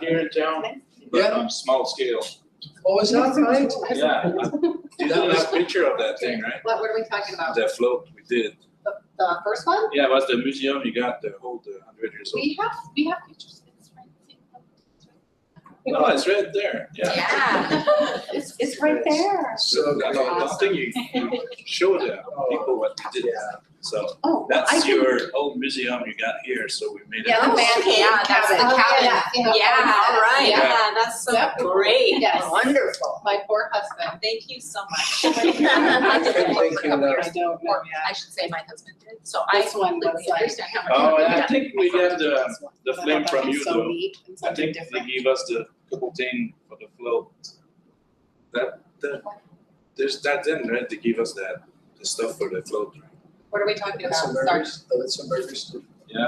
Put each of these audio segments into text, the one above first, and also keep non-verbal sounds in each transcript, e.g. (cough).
here in town, but Yeah. um, small scale. Oh, is that right? Yeah, (laughs) you have this picture of that thing, right? What, what are we talking about? That float we did. The, the first one? Yeah, it was the museum, you got the whole, the hundred years old. We have, we have pictures. It's right- it's No, it's right there, yeah. Yeah. right- It's, it's right there. So, I don't, I don't think you, you show the oh, people what you did, so Oh, well, I that's can, your old museum you got here, so we made it. Yeah, the Oh, man okay. yeah, that's the Oh, cabin. yeah, yeah. all right, Yeah. yeah, that's so Yep. great. Yes. Wonderful. My poor husband. Thank you so (laughs) Thank you, Laura. I don't know, Or, yeah. I should say my husband did, so I This one was completely like- understand how much. Oh, you and I (laughs) got. think we got the, This one. the But I flame thought from it's you so though. neat and I something think they different. gave us the couple thing for the float. That, that, there's that then, right, they give us that, the stuff for the float. right? What are we talking about? It's a Sorry. murder, oh, it's a murder story. Yeah.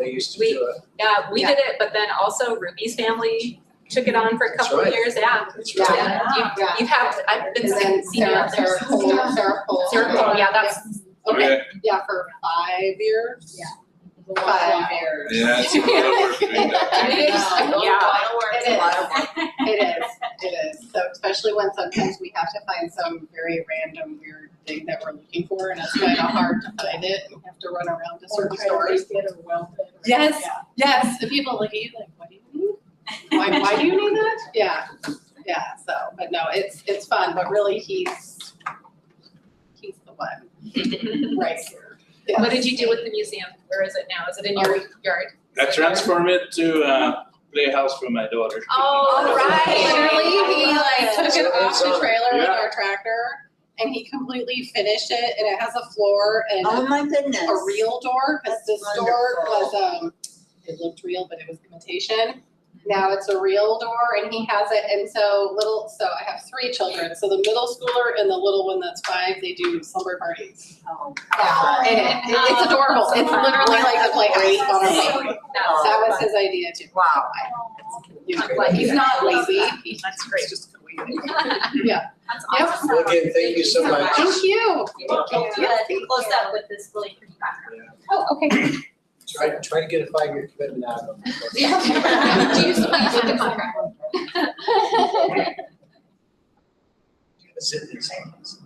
They used to We- do it. Yeah, we Yeah. did it, but then also Ruby's family took it on for a That's couple right. of years, yeah. That's Yeah. right. Yeah, Yeah. you, you have, I've been And then seeing, seeing you Sarah, out there. Sarah Cole, Sarah Cole. Sarah Cole, yeah, that's, Okay, yeah, for five years. Yeah. Five years. Yeah, it's a lot of work doing that. It Yeah. is. It is. (laughs) It is, it is. So especially when sometimes we have to find some very random weird thing that we're looking for and it's kind of hard to find it and we have to run around to certain stores. Yes. Yeah. Yes, the people look at you like, what do you need? Why, why do you (laughs) need that? Yeah, yeah, so, but no, it's, it's fun, but really he's, he's the (laughs) one right here. Yes. What did you do with the museum? Where is it now? Is it in your yard? I transform it to uh playhouse for my daughter. Oh, right. Literally, he like took it off the trailer with Yeah. our tractor and he completely finished it and it has a floor and Oh my goodness. a real door, because That's this door was, um, it looked real, but it was imitation. Now it's a real door and he has it, and so little, so I have three children, so the middle schooler and the little one that's five, they do slumber parties. Oh. And it- it- it's adorable, Oh, it's literally like the playhouse on a That's wheel. so- That was that's his idea too. Wow. Usually. He's not lazy, so- That's great. Yeah. That's Yep. awesome. Okay, thank you so much. thank you. Yeah, close up with this really pretty background. Oh, okay. (clears throat) Try, try to get a five-year commitment out of (laughs) them. (laughs) Do (laughs) you still have the contract? It's in his hands.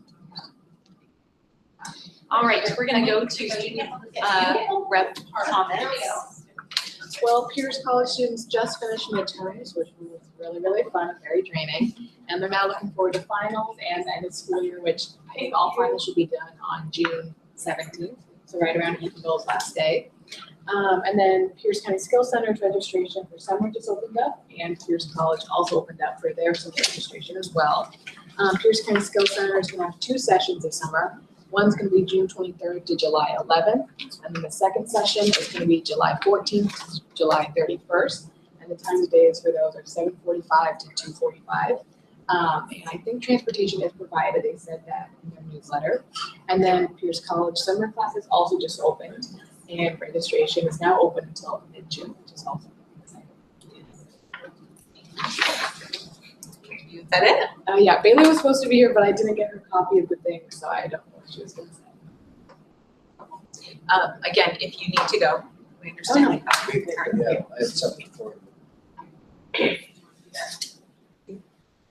All right, we're gonna go to student, uh, rep comments. Well, Pierce College students just finished midterms, which was really, really fun and very draining. And they're now looking forward to finals and the end of school year, which I think all finals should be done on June seventeenth, so right around Eatonville's last day. Um, and then Pierce County Skills Center's registration for summer just opened up, and Pierce College also opened up for their summer registration as well. Um, Pierce County Skills Center is gonna have two sessions this summer. One's gonna be June twenty-third to July eleventh, and then the second session is gonna be July fourteenth July thirty-first. And the times of days for those are seven forty-five to two forty-five. Um, and I think transportation is provided, they said that in their newsletter. And then Pierce College summer classes also just opened, and registration is now open until mid-June, which is also exciting. Is that it? Uh, yeah, Bailey was supposed to be here, but I didn't get her copy of the thing, so I don't know what she was gonna say. Um, again, if you need to go, we Oh, understand. Yeah, I have something for you.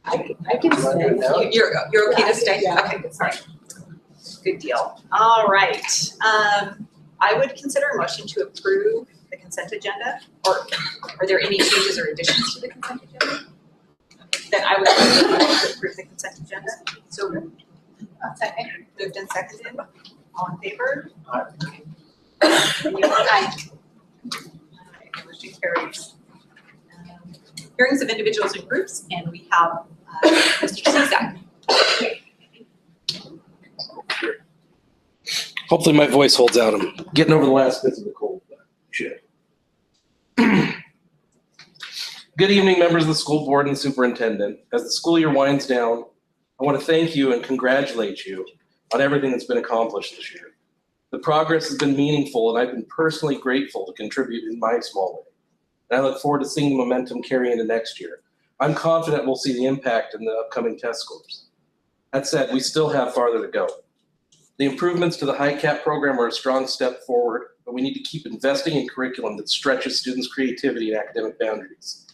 I can, I can Do you want to do it stay. now? You- You're, you're okay to stay? Yeah. Okay, good, sorry. Good deal. All right, um, I would consider a motion to approve the consent agenda, or are there any changes or additions to the consent agenda? Then I would consider a motion to approve the consent agenda, so moved. Second. Moved and seconded, all in favor? Aye. Anyone? Aye. Aye, Motion carries. Um, Hearings of individuals and groups, and we have, uh, Mr. Cezak. Hopefully my voice holds out. I'm getting over the last bits of the cold. but Shit. Good evening, members of the school board and superintendent. As the school year winds down, I want to thank you and congratulate you on everything that's been accomplished this year. The progress has been meaningful, and I've been personally grateful to contribute in my small way. And I look forward to seeing the momentum carry into next year. I'm confident we'll see the impact in the upcoming test scores. That said, we still have farther to go. The improvements to the high cap program are a strong step forward, but but we need to keep investing in curriculum that stretches students' creativity and academic boundaries.